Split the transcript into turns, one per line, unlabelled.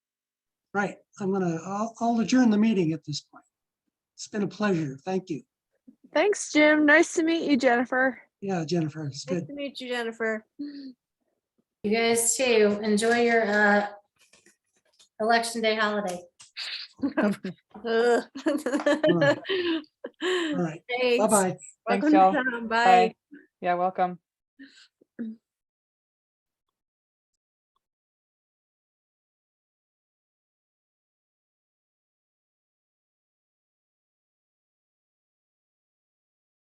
Right, I'm gonna, I'll, I'll adjourn the meeting at this point. It's been a pleasure. Thank you.
Thanks, Jim. Nice to meet you, Jennifer.
Yeah, Jennifer, it's
Nice
good.
to meet you, Jennifer.
You guys too. Enjoy your uh election day holiday.
Ugh.
All right,
Thanks.
bye-bye.
Thanks,
Welcome to
y'all.
town.
Bye.
Bye.
Yeah, welcome.